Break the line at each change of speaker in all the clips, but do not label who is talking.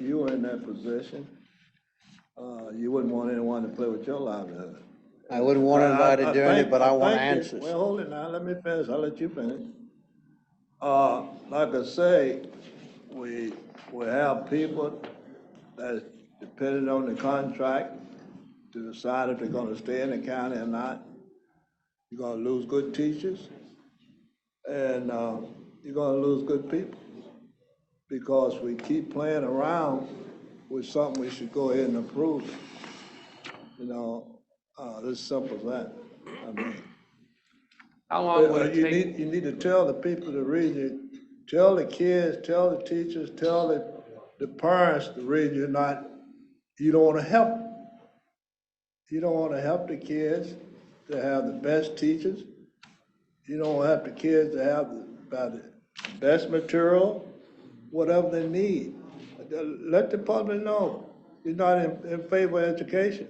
you were in that position, uh, you wouldn't want anyone to play with your livelihood.
I wouldn't want anybody
I- I
doing it,
think-
but I want
think it-
answers.
Well, hold it now, let me finish, I'll let you finish. Uh, like I say, we, we have people that's dependent on the contract to decide if they're gonna stay in the county or not. You're gonna lose good teachers, and, uh, you're gonna lose good people. Because we keep playing around with something we should go ahead and approve. You know, uh, this simple as that. I mean,
How long would
uh,
it
you
take?
need, you need to tell the people to read you, tell the kids, tell the teachers, tell the, the parents to read you're not, you don't wanna help. You don't wanna help the kids to have the best teachers. You don't want the kids to have the, about the best material, whatever they need. Let the public know, you're not in, in favor of education.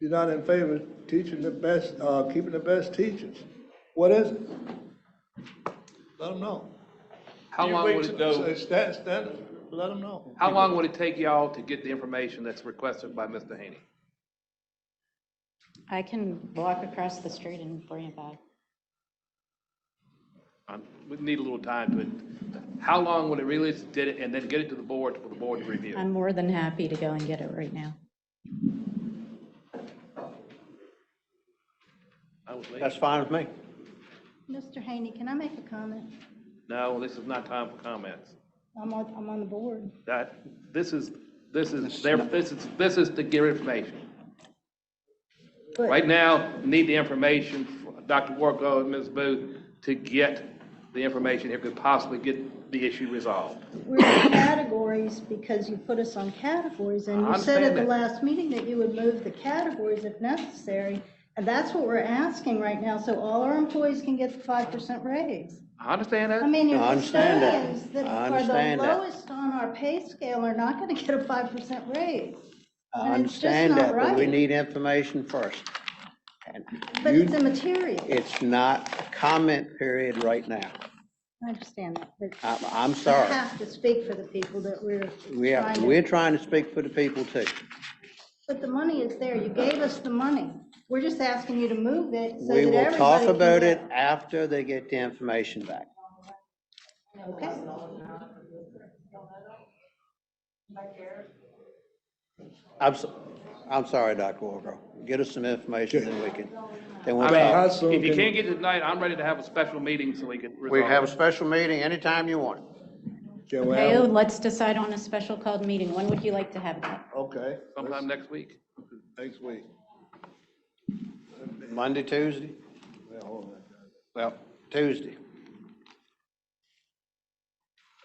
You're not in favor of teaching the best, uh, keeping the best teachers. What is it? Let them know.
How long would it go?
Say, Stand, stand, let them know.
How long would it take y'all to get the information that's requested by Mr. Haney?
I can walk across the street and bring it back.
Um, We need a little time to, it. how long would it really did it, and then get it to the board for the board to review?
Um,
I'm more than happy to go and get it right now.
I was late.
That's fine with me.
Mr. Haney, can I make a comment?
No, this is not time for comments.
I'm on, I'm on the board.
That, this is, this is, their- this is, this is to get information.
But-
Right now, we need the information, from Dr. Warco and Ms. Booth, to get the information if we could possibly get the issue resolved.
We're in categories because you put us on categories, and
I
you said at
understand
the
that.
last meeting that you would move the categories if necessary, and that's what we're asking right now, so all our employees can get the five percent raise.
I understand that.
I mean, your
I understand that.
custodians that
I
are the
understand that.
lowest on our pay scale are not gonna get a five percent raise.
I
And it's just
understand
not
that, but we
right.
need information first. And
But
you-
it's immaterial.
It's not a comment period right now.
I understand that, but
I'm, I'm
you
sorry.
have to speak for the people that we're
We are,
trying to.
we're trying to speak for the people too.
But the money is there. You gave us the money. We're just asking you to move it so that
We will talk
everybody can
about it
get-
after they get the information back.
Okay.
I'm, so- I'm sorry, Dr. Wargrove. Get us some information then we can, then we'll
I
talk.
soon
mean, if you
can-
can't get it tonight, I'm ready to have a special meeting so we can resolve.
We can have a
it.
special meeting anytime you want.
Can we
Okay,
have,
let's decide on a special called meeting. When would you like to have that?
okay,
Sometime next week.
next week.
Monday, Tuesday?
Yeah, hold on,
Well, Tuesday.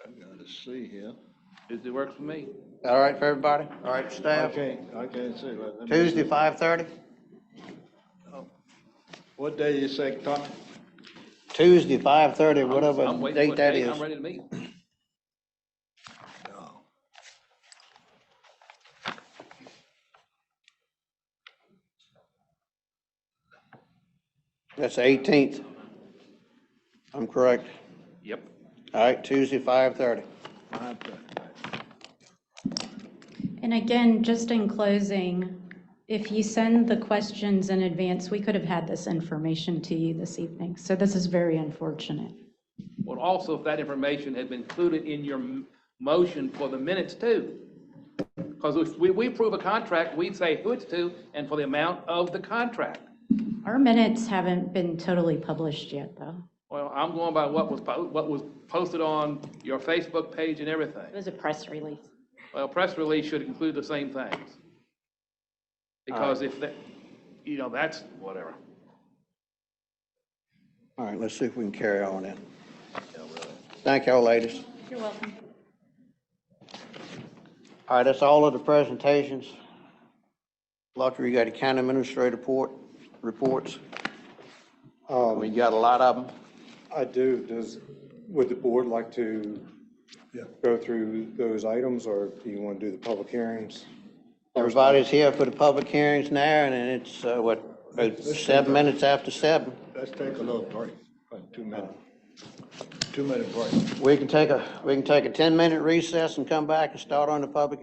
I gotta- I gotta see here.
It it works for me.
All right for everybody? All right,
I
staff?
can't, I can't see. Let me-
Tuesday, 5:30?
What day you say, Tom?
Tuesday, 5:30,
I'm- I'm
whatever
waiting
date
for a
that
date.
is.
I'm ready to meet.
No.
That's the 18th. I'm correct.
Yep.
All right, Tuesday, 5:30.
I think-
And again, just in closing, if you send the questions in advance, we could have had this information to you this evening. So this is very unfortunate.
Well, also, if that information had been included in your m- motion for the minutes too. Because if we, we approve a contract, we say who it's to and for the amount of the contract.
Our minutes haven't been totally published yet, though.
Well, I'm going by what was, po- what was posted on your Facebook page and everything.
It was a press release.
Well, press release should include the same things. Because if that, you know, that's whatever.
All right, let's see if we can carry on then. Thank y'all, ladies.
You're welcome.
All right, that's all of the presentations. Luttrell, you got a county administrator report, reports?
Um,
We got a lot of them.
I do. Does, would the board like to
Yeah.
go through those items, or do you want to do the public hearings?
Everybody's here for the public hearings now, and it's, uh, what, about seven minutes after seven.
Let's take a little break, about two minutes. Two minute break.
We can take a, we can take a 10-minute recess and come back and start on the public